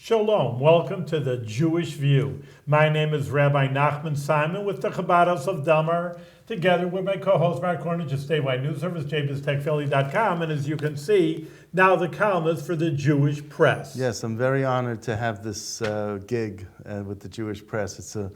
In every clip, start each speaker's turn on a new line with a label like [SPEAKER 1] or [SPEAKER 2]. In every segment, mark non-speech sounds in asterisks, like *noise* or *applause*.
[SPEAKER 1] Shalom, welcome to the Jewish View. My name is Rabbi Nachman Simon with the Chabad House of Dummer, together with my co-host Mark Cornish of Statewide News Service, jbiztechphilly.com, and as you can see, now the columnist for the Jewish Press.
[SPEAKER 2] Yes, I'm very honored to have this uh, gig uh, with the Jewish Press. It's a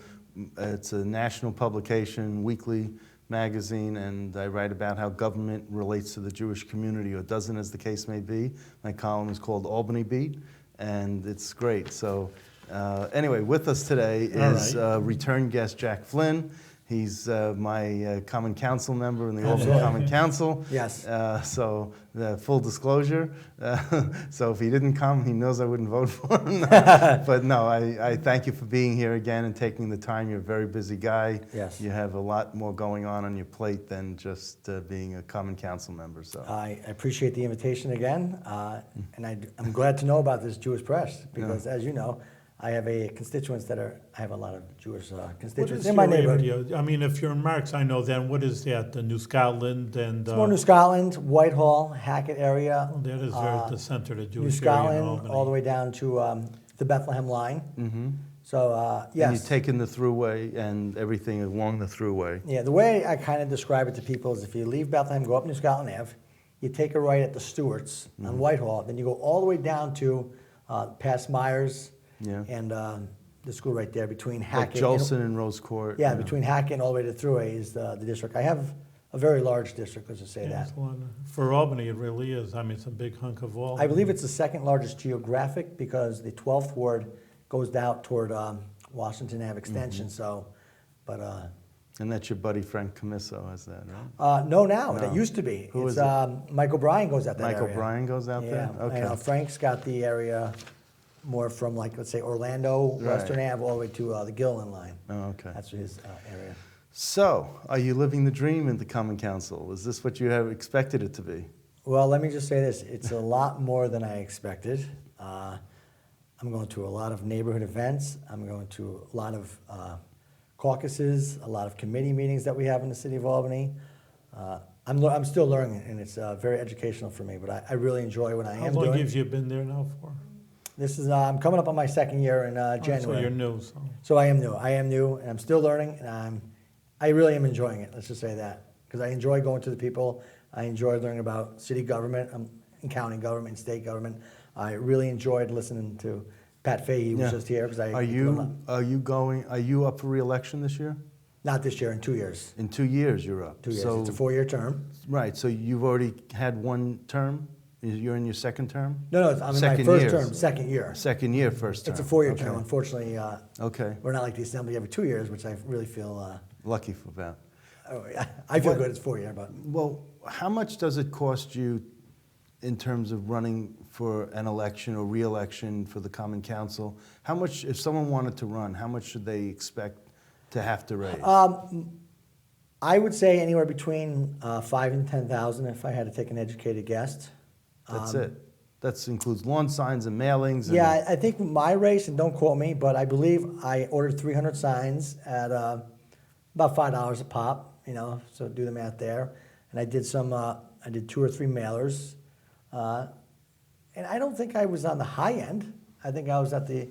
[SPEAKER 2] it's a national publication, weekly magazine, and I write about how government relates to the Jewish community or doesn't, as the case may be. My column is called Albany Beat, and it's great. So, uh, anyway, with us today
[SPEAKER 1] All
[SPEAKER 2] is
[SPEAKER 1] right.
[SPEAKER 2] uh, return guest Jack Flynn. He's uh, my uh, Common Council member in the Albany
[SPEAKER 1] Absolutely.
[SPEAKER 2] Common Council.
[SPEAKER 3] Yes.
[SPEAKER 2] Uh, so, the full disclosure. Uh, *laughs* so, if he didn't come, he knows I wouldn't vote *laughs* for him.
[SPEAKER 3] *laughs*
[SPEAKER 2] but no, I, I thank you for being here again and taking the time. You're a very busy guy.
[SPEAKER 3] Yes.
[SPEAKER 2] You have a lot more going on on your plate than just uh, being a Common Council member. So.
[SPEAKER 3] I I appreciate the invitation again, uh, and I, am glad to know about this Jewish press because, as you know, I have a constituents that are I have a lot of Jewish uh,
[SPEAKER 1] What
[SPEAKER 3] constituents
[SPEAKER 1] is
[SPEAKER 3] in my
[SPEAKER 1] your
[SPEAKER 3] neighborhood.
[SPEAKER 1] radio? I mean, if you're in Marks, I know then, what is that, the New Scotland and... uh,
[SPEAKER 3] It's more New Scotland, Whitehall, Hackett area,
[SPEAKER 1] That is very at the center of the
[SPEAKER 3] Uh, New
[SPEAKER 1] Jewish area in
[SPEAKER 3] Scotland, all the
[SPEAKER 1] Albany.
[SPEAKER 3] way down to um, the Bethlehem line. Mm-hmm. So uh,
[SPEAKER 2] And
[SPEAKER 3] yes,
[SPEAKER 2] you've taken the throughway and everything along the throughway.
[SPEAKER 3] yeah. The way I kind of describe it to people is if you leave Bethlehem, go up New Scotland Ave, you take a right at the Stewarts
[SPEAKER 2] Mm-hmm.
[SPEAKER 3] on Whitehall, then you go all the way down to uh, past Myers
[SPEAKER 2] Yeah.
[SPEAKER 3] and um, the school right there between
[SPEAKER 2] Like
[SPEAKER 3] Hackett. and-
[SPEAKER 2] Jolson and Rose Court.
[SPEAKER 3] yeah,
[SPEAKER 2] you know.
[SPEAKER 3] between Hackett and all the way to Thruway is the, the district. I have a very large district, let's just say
[SPEAKER 1] Yeah,
[SPEAKER 3] that.
[SPEAKER 1] it's a lot of- For Albany, it really is. I mean, it's a big hunk of Albany.
[SPEAKER 3] I believe it's the second largest geographic because the 12th ward goes out toward um, Washington Ave Extension.
[SPEAKER 2] Mm-hmm.
[SPEAKER 3] So, but uh,
[SPEAKER 2] And that's your buddy Frank Camiso has that, right?
[SPEAKER 3] uh, no, now that
[SPEAKER 2] No.
[SPEAKER 3] used to be.
[SPEAKER 2] Who is
[SPEAKER 3] it's
[SPEAKER 2] it?
[SPEAKER 3] Um, Michael Bryan goes out that
[SPEAKER 2] Michael
[SPEAKER 3] area.
[SPEAKER 2] Bryan goes out there?
[SPEAKER 3] Yeah,
[SPEAKER 2] Okay.
[SPEAKER 3] and, uh, Frank's got the area more from like let's say Orlando,
[SPEAKER 2] Right.
[SPEAKER 3] Western Ave, all the way to uh, the Gilliland line.
[SPEAKER 2] Oh, okay.
[SPEAKER 3] That's his uh, area.
[SPEAKER 2] So, are you living the dream at the Common Council? Is this what you have expected it to be?
[SPEAKER 3] Well, let me just say this: it's a lot more than I expected. Uh, I'm going to a lot of neighborhood events. I'm going to a lot of uh, caucuses, a lot of committee meetings that we have in the city of Albany. Uh, I'm, lear- I'm still learning, and it's uh, very educational for me. But I, I really enjoy what I
[SPEAKER 1] How
[SPEAKER 3] am
[SPEAKER 1] long
[SPEAKER 3] doing.
[SPEAKER 1] have you been there now for?
[SPEAKER 3] This is uh, I'm coming up on my second year in uh,
[SPEAKER 1] Oh, So
[SPEAKER 3] January.
[SPEAKER 1] you're new, so...
[SPEAKER 3] So I am new. I am new, and I'm still learning, and I'm, I really am enjoying it. Let's just say that because I enjoy going to the people. I enjoy learning about city government, um, and county government, and state government. I really enjoyed listening to Pat Fahey, who
[SPEAKER 2] Yeah.
[SPEAKER 3] was just here because I
[SPEAKER 2] Are you are you going? Are you up for re-election this year?
[SPEAKER 3] not this year in two years.
[SPEAKER 2] In two years, you're up.
[SPEAKER 3] Two years.
[SPEAKER 2] So,
[SPEAKER 3] it's a four-year term.
[SPEAKER 2] right. So you've already had one term. You're in your second term.
[SPEAKER 3] No, no, it's, I'm
[SPEAKER 2] Second
[SPEAKER 3] in my first
[SPEAKER 2] year.
[SPEAKER 3] term, second year.
[SPEAKER 2] Second year, first term.
[SPEAKER 3] It's a four-year
[SPEAKER 2] okay.
[SPEAKER 3] term. Unfortunately, uh,
[SPEAKER 2] Okay.
[SPEAKER 3] we're not like the assembly every two years, which I really feel. Uh,
[SPEAKER 2] Lucky for that.
[SPEAKER 3] oh, I feel
[SPEAKER 2] What-
[SPEAKER 3] good. It's four-year, but
[SPEAKER 2] Well, how much does it cost you in terms of running for an election or re-election for the Common Council? How much, if someone wanted to run, how much should they expect to have to raise?
[SPEAKER 3] I would say anywhere between uh, five and ten thousand if I had to take an educated guess.
[SPEAKER 2] That's it. That includes lawn signs and mailings. And,
[SPEAKER 3] Um, Yeah, I- I think my race, and don't quote me, but I believe I ordered 300 signs at uh, about five dollars a pop. You know, so do the math there. And I did some. Uh, I did two or three mailers, uh, and I don't think I was on the high end. I think I was at the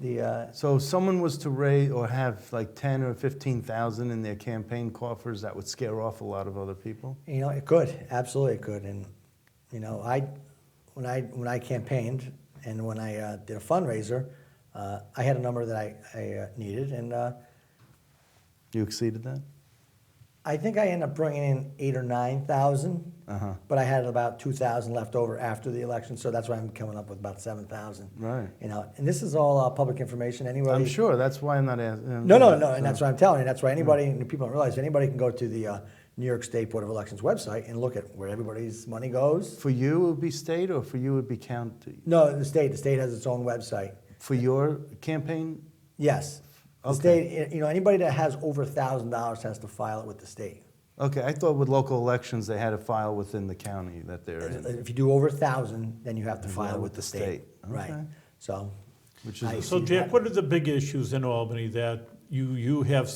[SPEAKER 3] the. Uh,
[SPEAKER 2] So if someone was to raise or have like ten or fifteen thousand in their campaign coffers, that would scare off a lot of other people.
[SPEAKER 3] You know, it could absolutely it could, and you know, I when I when I campaigned and when I uh, did a fundraiser, uh, I had a number that I, I uh, needed, and uh,
[SPEAKER 2] You exceeded that?
[SPEAKER 3] I think I ended up bringing in eight or nine thousand,
[SPEAKER 2] Uh-huh.
[SPEAKER 3] but I had about two thousand left over after the election, so that's why I'm coming up with about seven thousand.
[SPEAKER 2] Right.
[SPEAKER 3] You know, and this is all uh, public information. Anyway,
[SPEAKER 2] I'm sure. That's why I'm not uh, asking.
[SPEAKER 3] No, no, no, and that's what I'm telling you. That's why anybody, and people don't realize, anybody can go to the uh, New York State Board of Elections website and look at where everybody's money goes.
[SPEAKER 2] For you, it would be state, or for you, it would be county.
[SPEAKER 3] No, the state. The state has its own website.
[SPEAKER 2] For your campaign,
[SPEAKER 3] Yes. The
[SPEAKER 2] Okay.
[SPEAKER 3] state, eh, you know, anybody that has over a thousand dollars has to file it with the state.
[SPEAKER 2] okay. I thought with local elections they had a file within the county that they're in,
[SPEAKER 3] If you do over a thousand, then you have to file
[SPEAKER 2] with
[SPEAKER 3] with
[SPEAKER 2] the
[SPEAKER 3] the state.
[SPEAKER 2] state.
[SPEAKER 3] Right.
[SPEAKER 2] Okay.
[SPEAKER 3] So.
[SPEAKER 2] which is
[SPEAKER 3] I
[SPEAKER 1] So
[SPEAKER 3] see
[SPEAKER 1] Jack,
[SPEAKER 3] that.
[SPEAKER 1] what are the big issues in Albany that you, you have